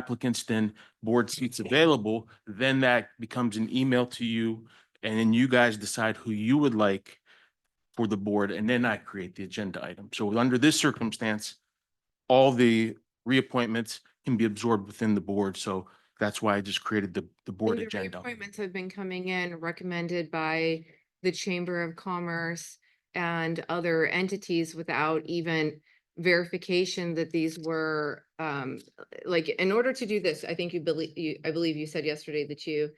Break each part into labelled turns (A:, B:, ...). A: applicants than board seats available, then that becomes an email to you. And then you guys decide who you would like for the board, and then I create the agenda item. So under this circumstance, all the reappointments can be absorbed within the board. So that's why I just created the, the board
B: And the
A: agenda.
B: Appointments have been coming in recommended by the Chamber of Commerce and other entities without even verification that these were, um, like, in order to do this, I think you believe, you, I believe you said yesterday that you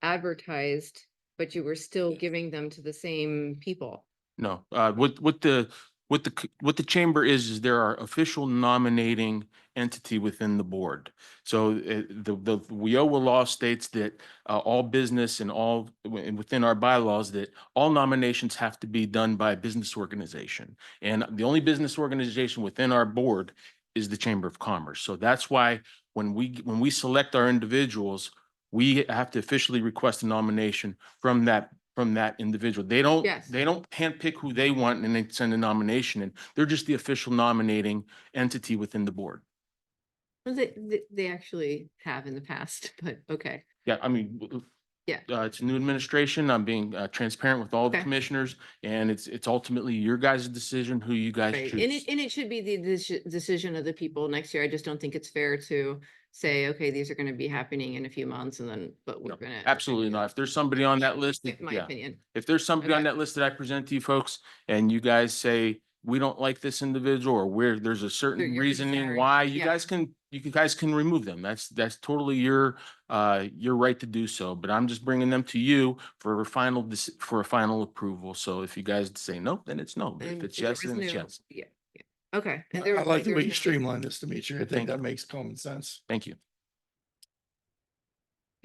B: advertised, but you were still giving them to the same people.
A: No, uh, what, what the, what the, c- what the chamber is, is there are official nominating entity within the board. So uh, the, the WIOA law states that uh, all business and all, and within our bylaws, that all nominations have to be done by a business organization. And the only business organization within our board is the Chamber of Commerce. So that's why when we, when we select our individuals, we have to officially request a nomination from that, from that individual. They don't,
B: Yes.
A: they don't handpick who they want and then send a nomination in. They're just the official nominating entity within the board.
B: Well, They, they, they actually have in the past, but okay.
A: Yeah, I mean. w- w-
B: Yeah.
A: Uh, it's a new administration. I'm being uh, transparent with all the
B: Okay.
A: commissioners and it's, it's ultimately your guys' decision who you guys
B: Right, and
A: choose.
B: it, and it should be the deci- decision of the people next year. I just don't think it's fair to say, okay, these are gonna be happening in a few months and then, but we're
A: No,
B: gonna.
A: Absolutely not. If there's somebody on that list,
B: In my
A: yeah.
B: opinion,
A: If there's somebody on
B: Okay.
A: that list that I present to you folks and you guys say, we don't like this individual or where there's a certain
B: you're
A: reasoning
B: concerned,
A: why, you
B: yeah.
A: guys can, you can- guys can remove them. That's, that's totally your, uh, your right to do so. But I'm just bringing them to you for a final, dec- for a final approval. So if you guys say no, then it's no. But
B: And
A: If it's
B: there
A: yes,
B: was
A: then it's
B: no-
A: yes.
B: yeah, yeah. okay.
C: I
B: and there
C: I
B: was-
C: like the
B: there was
C: way you
B: no-
C: streamline this, Dimitri. I
A: Thank
C: think that makes common sense.
A: Thank you.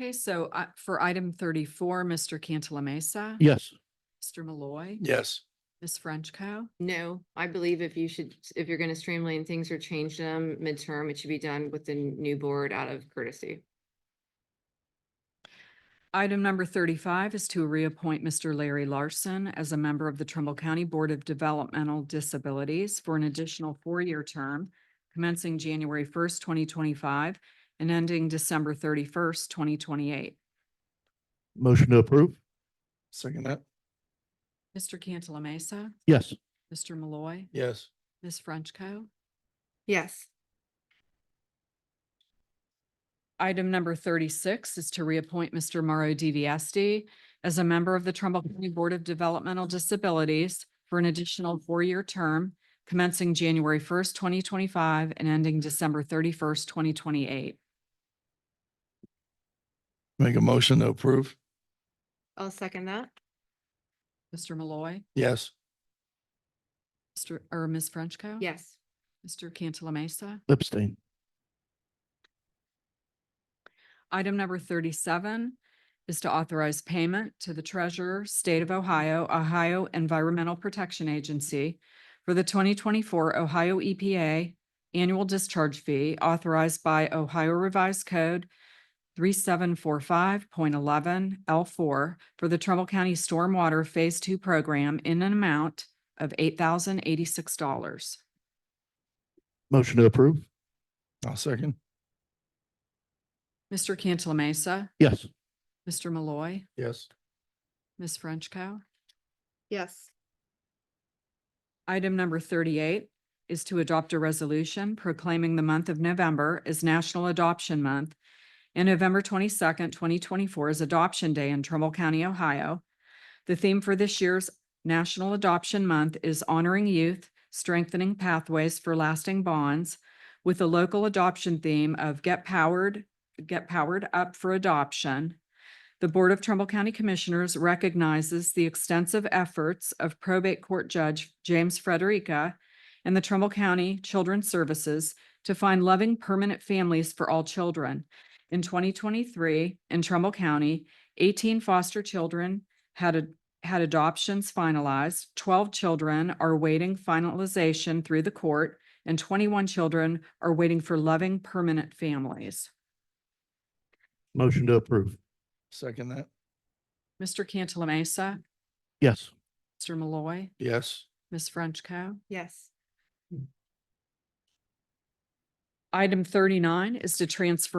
D: Okay, so uh, for item thirty-four, Mr. Cantala Mesa.
C: Yes.
D: Mr. Malloy.
C: Yes.
D: Ms. Frenchco.
B: No, I believe if you should, if you're gonna streamline things or change them midterm, it should be done with the new board out of courtesy.
D: Item number thirty-five is to reappoint Mr. Larry Larson as a member of the Trumbull County Board of Developmental Disabilities for an additional four-year term commencing January first, twenty twenty-five and ending December thirty-first, twenty twenty-eight.
E: Motion to approve?
C: Second that.
D: Mr. Cantala Mesa,
E: Yes.
D: Mr. Malloy,
C: Yes.
D: Ms. Frenchco.
B: Yes,
D: Item number thirty-six is to reappoint Mr. Mauro DiViesti as a member of the Trumbull County Board of Developmental Disabilities for an additional four-year term commencing January first, twenty twenty-five and ending December thirty-first, twenty twenty-eight.
C: Make a motion to approve.
B: I'll second that.
D: Mr. Malloy,
C: Yes.
D: Mr. or Ms. Frenchco.
B: Yes,
D: Mr. Cantala Mesa.
E: Abstain.
D: Item number thirty-seven is to authorize payment to the Treasurer, State of Ohio, Ohio Environmental Protection Agency for the twenty twenty-four Ohio EPA Annual Discharge Fee authorized by Ohio Revised Code three seven four five point eleven L four for the Trumbull County Stormwater Phase Two Program in an amount of eight thousand eighty-six dollars.
E: Motion to approve?
C: I'll second.
D: Mr. Cantala Mesa,
E: Yes.
D: Mr. Malloy,
C: Yes.
D: Ms. Frenchco.
B: yes,
D: Item number thirty-eight is to adopt a resolution proclaiming the month of November as National Adoption Month and November twenty-second, twenty twenty-four is Adoption Day in Trumbull County, Ohio. The theme for this year's National Adoption Month is honoring youth, strengthening pathways for lasting bonds with a local adoption theme of get powered, get powered up for adoption the Board of Trumbull County Commissioners recognizes the extensive efforts of probate court judge James Frederica and the Trumbull County Children's Services to find loving permanent families for all children. In twenty twenty-three, in Trumbull County, eighteen foster children had a- had adoptions finalized, twelve children are waiting finalization through the court, and twenty-one children are waiting for loving permanent families.
E: Motion to approve?
C: Second that.
D: Mr. Cantala Mesa,
E: Yes.
D: Mr. Malloy.
C: Yes.
D: Ms. Frenchco.
B: yes,
D: Item thirty-nine is to transfer